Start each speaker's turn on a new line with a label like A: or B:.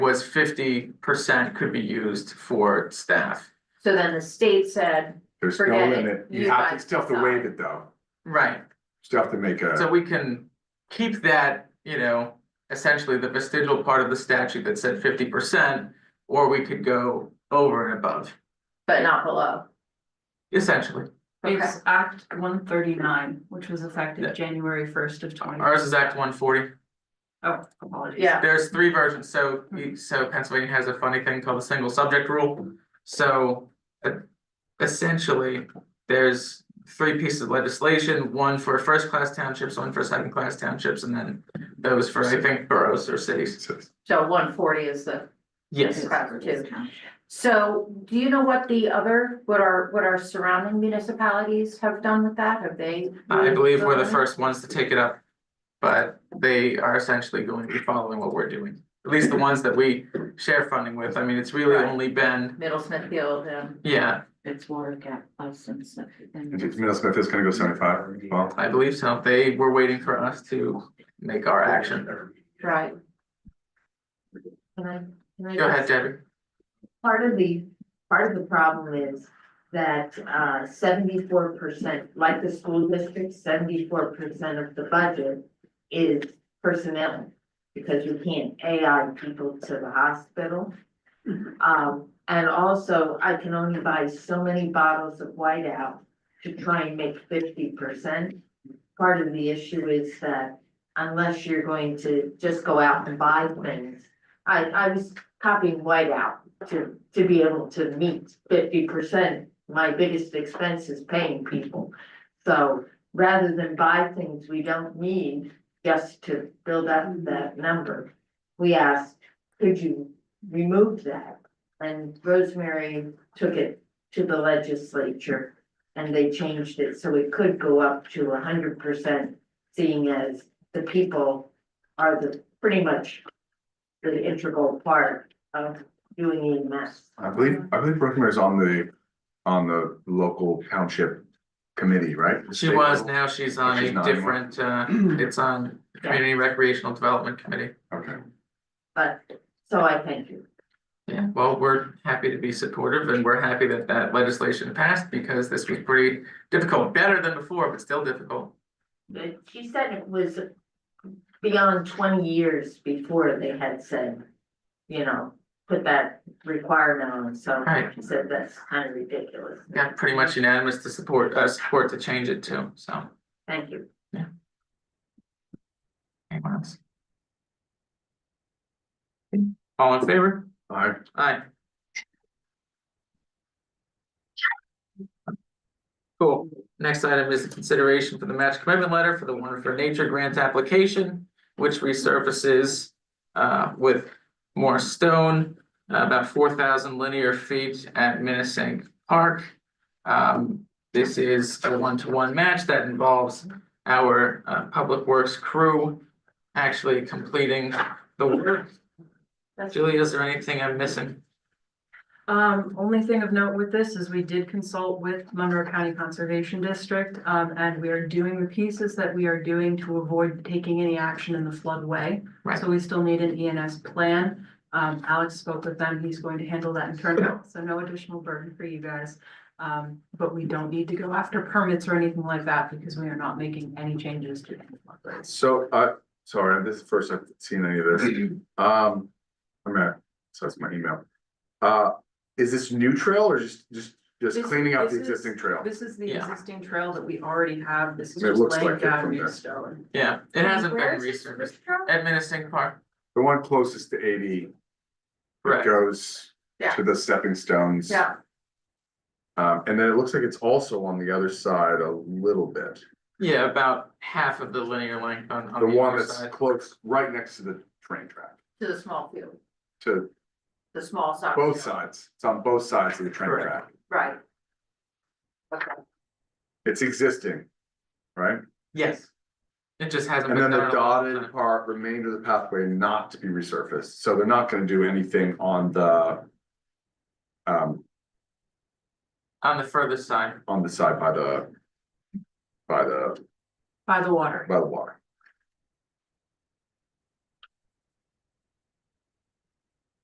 A: was fifty percent could be used for staff.
B: So then the state said,
C: There's no
B: Forget it.
C: limit,
B: You
C: you have to,
B: guys
C: still have to
B: decide.
C: waive it though,
A: Right,
C: still have to make
A: so
C: a,
A: we can keep that, you know, essentially the vestigial part of the statute that said fifty percent. Or we could go over and above,
B: but not below.
A: essentially.
B: Okay.
D: It's Act one thirty-nine, which was
A: Yeah.
D: effective January first of twenty.
A: Ours is Act one forty.
D: Oh, apologies.
B: Yeah,
A: There's three versions, so, e, so Pennsylvania has a funny thing called the single subject rule. So, uh, essentially, there's three pieces of legislation, one for first class townships, one for second class townships, and then those for, I think, boroughs or cities.
C: so-
B: so one forty is the
A: Yes,
B: proper two. So do you know what the other, what our, what our surrounding municipalities have done with that? Have they?
A: I believe we're the first ones to take it up. But they are essentially going to be following what we're doing, at least the ones that we share funding with. I mean, it's really
B: Right.
A: only been,
B: Middle Smithfield and,
A: yeah,
D: It's Warwick at us and stuff.
B: Mm-hmm.
C: and if Middle Smith is gonna go seventy-five, well,
A: I believe so. They were waiting for us to make our action.
B: right?
E: Can I, can
A: Go
E: I,
A: ahead,
E: just-
A: Debbie.
E: part of the, part of the problem is that uh seventy-four percent, like the school district, seventy-four percent of the budget is personnel. Because you can't AI people to the hospital. Um, and also, I can only buy so many bottles of whiteout to try and make fifty percent. Part of the issue is that unless you're going to just go out and buy things, I I was copying whiteout to, to be able to meet fifty percent. My biggest expense is paying people. So rather than buy things we don't need just to build up that number, we asked, could you remove that? And Rosemary took it to the legislature and they changed it so it could go up to hundred percent, seeing as the people are the, pretty much the integral part of doing EMS.
C: I believe, I believe Brookmere's on the, on the local township committee, right? The
A: She
C: state
A: was,
C: level?
A: now she's on
C: She's
A: a
C: not anymore.
A: different, uh, it's on the
E: Yeah.
A: Community Recreational Development Committee.
C: Okay,
E: But, so I thank you.
A: Yeah, well, we're happy to be supportive and we're happy that that legislation passed because this was pretty difficult, better than before, but still difficult.
E: But Uh, she said it was beyond twenty years before they had said, you know, put that requirement on, so
A: Right.
E: she said that's kind of ridiculous.
A: Got pretty much unanimous to support, uh, support to change it too, so.
E: Thank you.
A: Anyone else? All in favor?
C: I,
A: Aye. Cool. Next item is the consideration for the match commitment letter for the One for Nature grant application, which resurfaces uh, with more stone, uh, about four thousand linear feet at Minnesink Park. Um, this is a one-to-one match that involves our uh, Public Works crew actually completing the work. Julie, is there anything I'm missing?
D: Um, only thing of note with this is we did consult with Monroe County Conservation District, um, and we are doing the pieces that we are doing to avoid taking any action in the floodway.
A: Right.
D: So we still need an ENS plan. Um, Alex spoke with them. He's going to handle that internally, so no additional burden for you guys. Um, but we don't need to go after permits or anything like that because we are not making any changes to any floodways.
C: so, uh, sorry, this is the first I've seen any of this, um, I'm at, so that's my email. Uh, is this new trail or just, just, just
D: This-
C: cleaning up the
D: this is-
C: existing trail?
D: This is the
A: Yeah.
D: existing trail that we already have. This is
C: It
D: just
C: looks like
D: laying
C: it
D: down
C: from
D: new
C: there.
D: stone.
A: Yeah, it hasn't
B: Where
A: been
B: is this
A: resurfaced.
B: from?
A: At Minnesink Park,
C: The one closest to eighty
A: correct.
C: goes
B: Yeah.
C: to the stepping stones.
B: Yeah,
C: Um, and then it looks like it's also on the other side a little bit.
A: Yeah, about half of the linear length on,
C: The
A: on the
C: one
A: other
C: that's
A: side.
C: close, right next to the train track,
B: to the small field,
C: to
B: the small side.
C: both sides. It's on both sides of the train
A: Correct.
C: track.
B: Right. Okay,
C: It's existing, right?
A: Yes. It just hasn't
C: And
A: been
C: then the
A: done in a long
C: dotted
A: time.
C: part, remainder of the pathway not to be resurfaced. So they're not gonna do anything on the um,
A: On the further side,
C: on the side by the by the,
D: By the water.
C: by the water.